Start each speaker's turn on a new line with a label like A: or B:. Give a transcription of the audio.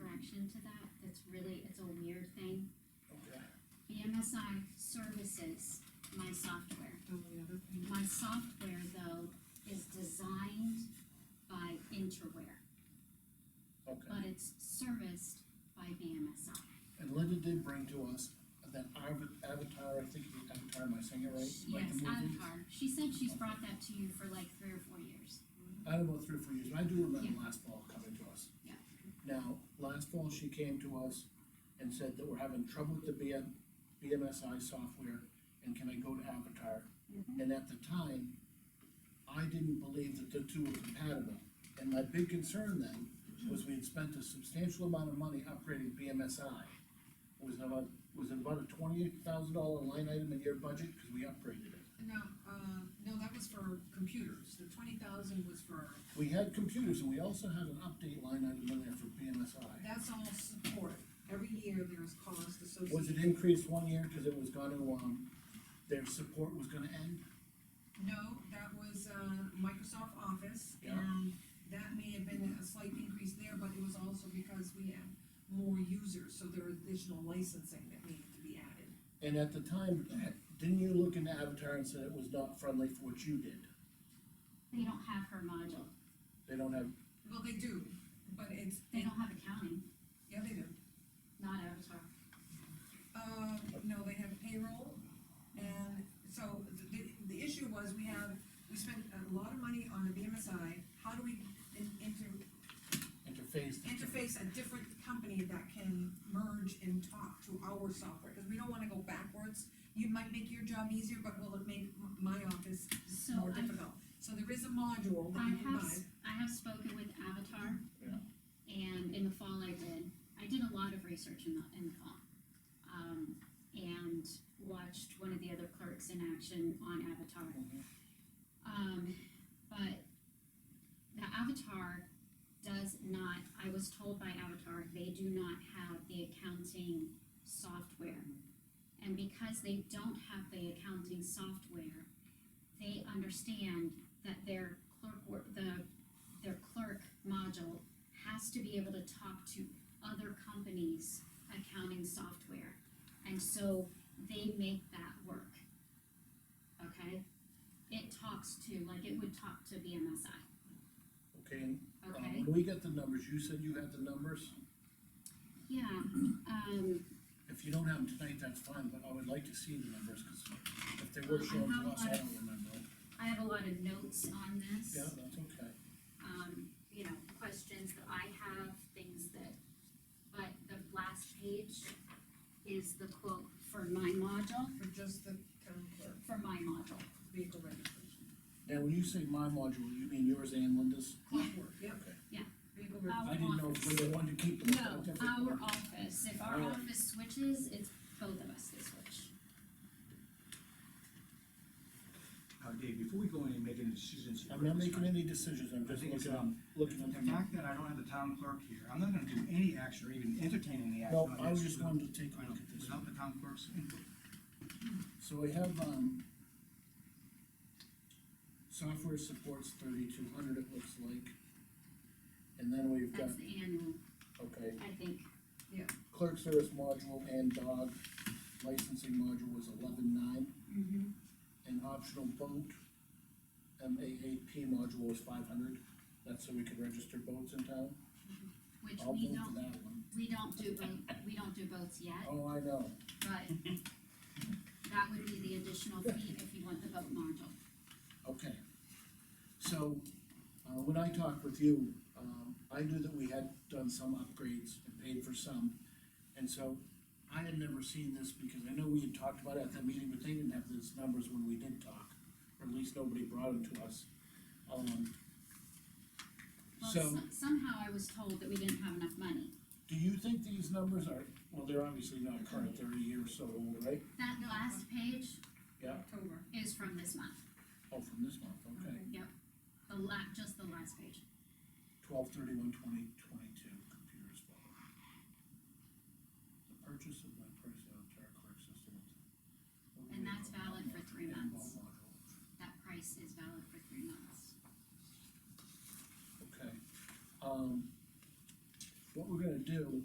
A: MSI services my software.
B: Oh, yeah, okay.
A: My software, though, is designed by Interware,
C: Okay,
A: but it's serviced by BMSI.
C: and Linda did bring to us that Av- Avatar, I think it's Avatar, am I saying it right? Like the
A: Yes,
C: movie?
A: Avatar. She said she's brought that to you for like three or four years.
C: I don't know, three or four years, but I do remember
A: Yeah.
C: last fall coming to us.
A: Yeah.
C: Now, last fall, she came to us and said that we're having trouble with the BM, BMSI software, and can I go to Avatar?
A: Mm-hmm.
C: And at the time, I didn't believe that the two were compatible, and my big concern then
A: Mm-hmm.
C: was we had spent a substantial amount of money upgrading BMSI. It was about, was it about a twenty-eight thousand dollar line item in your budget, because we upgraded it.
B: No, uh, no, that was for computers, the twenty thousand was for,
C: We had computers, and we also had an update line item in there for BMSI.
B: that's all support, every year there's cost
C: Was
B: associated.
C: it increased one year because it was gonna, um, their support was gonna end?
B: No, that was, uh, Microsoft Office,
C: Yeah.
B: and that may have been a slight increase there, but it was also because we had more users, so there were additional licensing that needed to be added.
C: And at the time, didn't you look into Avatar and said it was not friendly for what you did?
A: They don't have her module.
C: They don't have,
B: Well, they do, but it's,
A: They don't have accounting,
B: yeah, they do.
A: not Avatar.
B: Uh, no, they have payroll, and so the, the issue was, we have, we spent a lot of money on the BMSI, how do we in- inter-
C: interface.
B: interface a different company that can merge and talk to our software, because we don't wanna go backwards. You might make your job easier, but will it make m- my office
A: So
B: more
A: I
B: difficult? So there is a module that
A: I
B: you can
A: have,
B: buy.
A: s- I have spoken with Avatar.
C: Yeah.
A: And in the fall I did, I did a lot of research in the, in the fall. Um, and watched one of the other clerks in action on Avatar.
C: Mhm.
A: Um, but the Avatar does not, I was told by Avatar, they do not have the accounting software. And because they don't have the accounting software, they understand that their clerk, wor- the, their clerk module has to be able to talk to other companies' accounting software. And so they make that work. Okay? It talks to, like, it would talk to BMSI,
C: Okay, and, um,
A: okay?
C: when we get the numbers, you said you had the numbers.
A: Yeah, um,
C: If you don't have them tonight, that's fine, but I would like to see the numbers, because if they
A: Uh,
C: were
A: I
C: shown
A: have
C: to us, I
A: one.
C: don't remember.
A: I have a lot of notes on this.
C: Yeah, that's okay.
A: um, you know, questions that I have, things that, but the last page is the quote for my module,
B: For just the town clerk,
A: for my module.
B: vehicle registration,
C: Now, when you say my module, you mean yours and Linda's?
B: clockwork, yep.
C: Okay.
A: Yeah.
B: Vehicle
A: Uh,
B: registration,
C: I didn't know if Linda wanted to keep them.
A: No, our office, if our
C: Alright.
A: office switches, it's both of us that switch.
D: Uh, Dave, before we go in and make any decisions. here,
C: I'm not
D: it's
C: making
D: fine.
C: any decisions, I'm
D: I
C: just
D: think it's,
C: looking,
D: um,
C: looking at
D: the fact that I don't have the town clerk here, I'm not gonna do any action or even entertain any action.
C: No,
D: on
C: I was
D: this
C: just wanted to take a
D: without-
C: look at this.
D: Without the town clerk's input.
C: So we have, um, software supports thirty-two hundred, it looks like. And then we've got,
A: That's the annual,
C: okay,
A: I think,
C: clerk service module and dog licensing module was eleven-nine,
B: Mm-hmm.
C: and optional boat, M A A P module was five hundred. That's so we could register boats in town.
A: which
C: I'll
A: we
C: vote for
A: don't,
C: that one.
A: we don't do both, we don't do both yet,
C: Oh, I know.
A: but that would be the additional fee if you want the boat module.
C: Okay. So, uh, when I talked with you, um, I knew that we had done some upgrades and paid for some. And so I had never seen this because I know we had talked about it at that meeting, but they didn't have those numbers when we did talk. Or at least nobody brought them to us. Um,
A: Well,
C: so
A: some- somehow I was told that we didn't have enough money.
C: do you think these numbers are, well, they're obviously not current, they're a year or so old, right?
A: That
B: No.
A: last page
B: October.
A: is from this month.
C: Oh, from this month, okay.
A: The la, just the last page.
C: twelve thirty-one twenty twenty-two, computers bought. The purchase of my personal entire clerk system.
A: And that's valid for three months.
C: Involved module.
A: That price is valid for three months.
C: Okay, um, what we're gonna do